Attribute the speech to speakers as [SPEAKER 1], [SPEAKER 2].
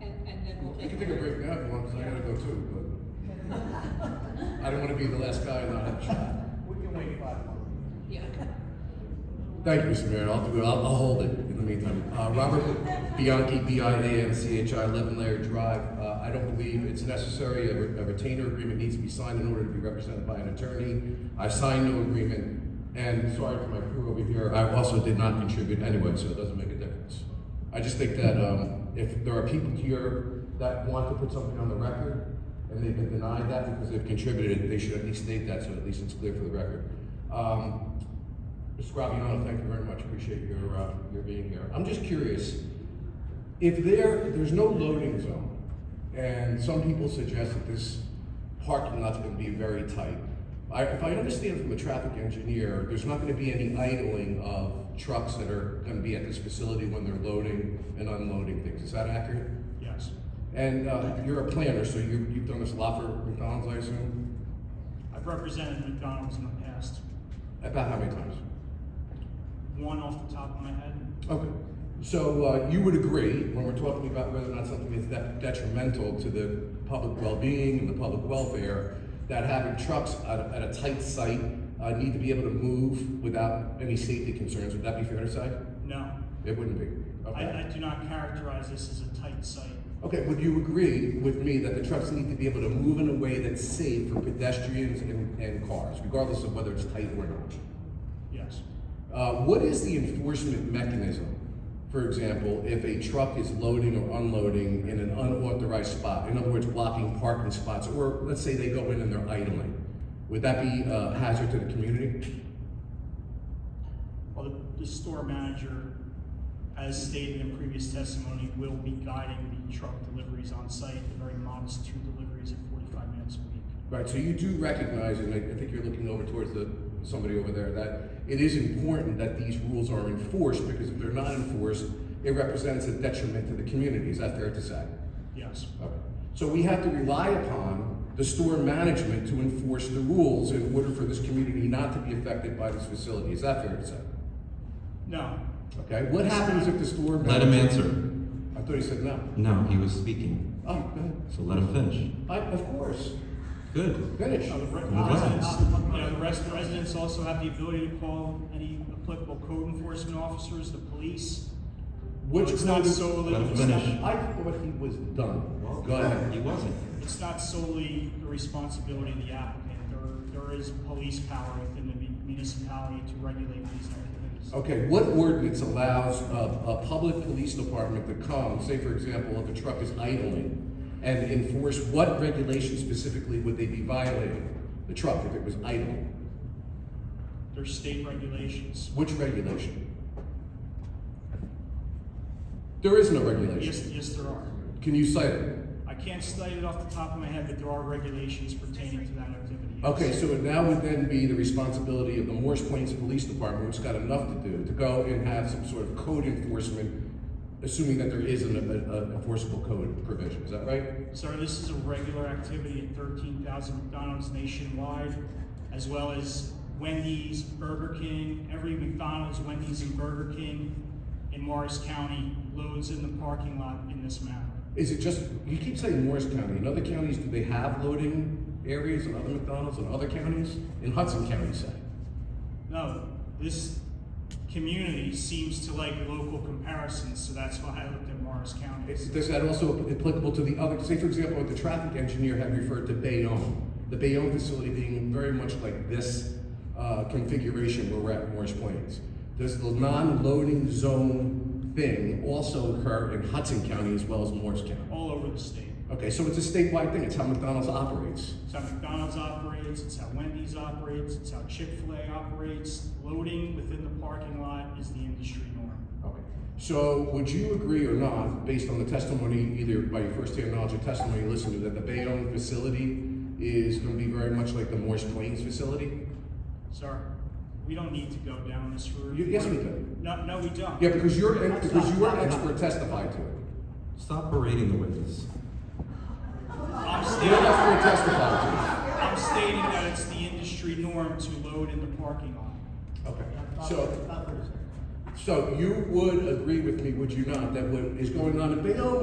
[SPEAKER 1] then we'll
[SPEAKER 2] You
[SPEAKER 1] take.
[SPEAKER 2] can take a break now if you want, 'cause I gotta go too, but I don't wanna be the last guy not have a shot.
[SPEAKER 3] We can wait five months.
[SPEAKER 1] Yeah.
[SPEAKER 2] Thank you, Mr. Mayor. I'll do it. I'll, I'll hold it in the meantime. Uh, Robert Bianchi, B-I-A-N-C-H-I, eleven Layer Drive. Uh, I don't believe it's necessary. A re- a retainer agreement needs to be signed in order to be represented by an attorney. I signed no agreement, and sorry for my crew over here. I also did not contribute anyway, so it doesn't make a difference. I just think that, um, if there are people here that want to put something on the record, and they've been denied that because they've contributed, they should at least state that, so at least it's clear for the record. Um, Mr. Graviano, thank you very much, appreciate your, uh, your being here. I'm just curious, if there, there's no loading zone, and some people suggest that this parking lot's gonna be very tight. I, if I understand from a traffic engineer, there's not gonna be any idling of trucks that are gonna be at this facility when they're loading and unloading things, is that accurate?
[SPEAKER 4] Yes,
[SPEAKER 2] And, uh, you're a planner, so you, you've done this a lot for McDonald's, I assume?
[SPEAKER 4] I've represented McDonald's in the past,
[SPEAKER 2] About how many times?
[SPEAKER 4] one off the top of my head.
[SPEAKER 2] Okay, so uh, you would agree, when we're talking about whether or not something is de- detrimental to the public well-being and the public welfare, that having trucks at a, at a tight site uh, need to be able to move without any safety concerns, would that be fair to say?
[SPEAKER 4] No,
[SPEAKER 2] It wouldn't be,
[SPEAKER 4] I, I
[SPEAKER 2] okay?
[SPEAKER 4] do not characterize this as a tight site.
[SPEAKER 2] Okay, would you agree with me that the trucks need to be able to move in a way that's safe for pedestrians and, and cars, regardless of whether it's tight or not?
[SPEAKER 4] Yes,
[SPEAKER 2] Uh, what is the enforcement mechanism? For example, if a truck is loading or unloading in an unauthorized spot, in other words, blocking parking spots, or let's say they go in and they're idling, would that be a hazard to the community?
[SPEAKER 4] well, the, the store manager, as stated in previous testimony, will be guiding the truck deliveries on site, the very modest two deliveries at forty-five minutes a week.
[SPEAKER 2] Right, so you do recognize, and I, I think you're looking over towards the, somebody over there, that it is important that these rules are enforced, because if they're not enforced, it represents a detriment to the community, is that fair to say?
[SPEAKER 4] Yes,
[SPEAKER 2] Okay. So we have to rely upon the store management to enforce the rules in order for this community not to be affected by this facility. Is that fair to say?
[SPEAKER 4] no,
[SPEAKER 2] Okay, what happens if the store?
[SPEAKER 5] Let him
[SPEAKER 2] manager-
[SPEAKER 5] answer.
[SPEAKER 2] I thought he said no.
[SPEAKER 5] No, he was speaking,
[SPEAKER 2] Oh, go ahead.
[SPEAKER 5] so let him finish.
[SPEAKER 2] I, of course,
[SPEAKER 5] Good.
[SPEAKER 2] finish.
[SPEAKER 4] Uh, the re-
[SPEAKER 5] Well,
[SPEAKER 4] residents,
[SPEAKER 5] that's-
[SPEAKER 4] you know, the rest, residents also have the ability to call any applicable code enforcement officers, the police.
[SPEAKER 2] Which
[SPEAKER 4] It's not
[SPEAKER 2] code-
[SPEAKER 4] solely,
[SPEAKER 5] Let him
[SPEAKER 4] it's not-
[SPEAKER 5] finish.
[SPEAKER 2] I thought he was done. Go ahead.
[SPEAKER 5] He wasn't.
[SPEAKER 4] it's not solely the responsibility of the applicant. There, there is police power within the mu- municipality to regulate these activities.
[SPEAKER 2] Okay, what ordinance allows a, a public police department to come, say for example, if a truck is idling, and enforce what regulation specifically would they be violating? The truck, if it was idling,
[SPEAKER 4] There's state regulations.
[SPEAKER 2] which regulation? There is no regulation.
[SPEAKER 4] Yes, yes, there are.
[SPEAKER 2] Can you cite it?
[SPEAKER 4] I can't cite it off the top of my head, but there are regulations pertaining to that activity. yes.
[SPEAKER 2] Okay, so it now would then be the responsibility of the Morris Plains Police Department, which has got enough to do, to go and have some sort of code enforcement, assuming that there is an, a- a enforceable code provision, is that right?
[SPEAKER 4] Sir, this is a regular activity at thirteen thousand McDonald's nationwide, as well as Wendy's, Burger King, every McDonald's, Wendy's, and Burger King in Morris County loads in the parking lot in this manner.
[SPEAKER 2] Is it just, you keep saying Morris County, in other counties, do they have loading areas and other McDonald's in other counties? In Hudson County, say.
[SPEAKER 4] No, this community seems to like local comparisons, so that's why I looked at Morris County.
[SPEAKER 2] Is is that also applicable to the other, say for example, what the traffic engineer had referred to Bayonne, the Bayonne facility being very much like this uh, configuration where we're at in Morris Plains. Does the non-loading zone thing also occur in Hudson County as well as Morris County?
[SPEAKER 4] All over the state.
[SPEAKER 2] Okay, so it's a statewide thing, it's how McDonald's operates.
[SPEAKER 4] It's how McDonald's operates, it's how Wendy's operates, it's how Chick-fil-A operates. Loading within the parking lot is the industry norm.
[SPEAKER 2] Okay. So would you agree or not, based on the testimony, either by your first-hand knowledge or testimony you listened to, that the Bayonne facility is gonna be very much like the Morris Plains facility?
[SPEAKER 4] Sir, we don't need to go down this route.
[SPEAKER 2] You- yes, we do.
[SPEAKER 4] No, no, we don't.
[SPEAKER 2] Yeah, because your, because your expert testified to it.
[SPEAKER 5] Stop berating the witness.
[SPEAKER 4] I'm
[SPEAKER 2] Your
[SPEAKER 4] stating,
[SPEAKER 2] expert testified
[SPEAKER 4] I'm stating that it's the industry norm to load in the parking lot.
[SPEAKER 2] to it. Okay,
[SPEAKER 3] Stop
[SPEAKER 2] so,
[SPEAKER 3] for a second.
[SPEAKER 2] so you would agree with me, would you not, that what is going on in Bayonne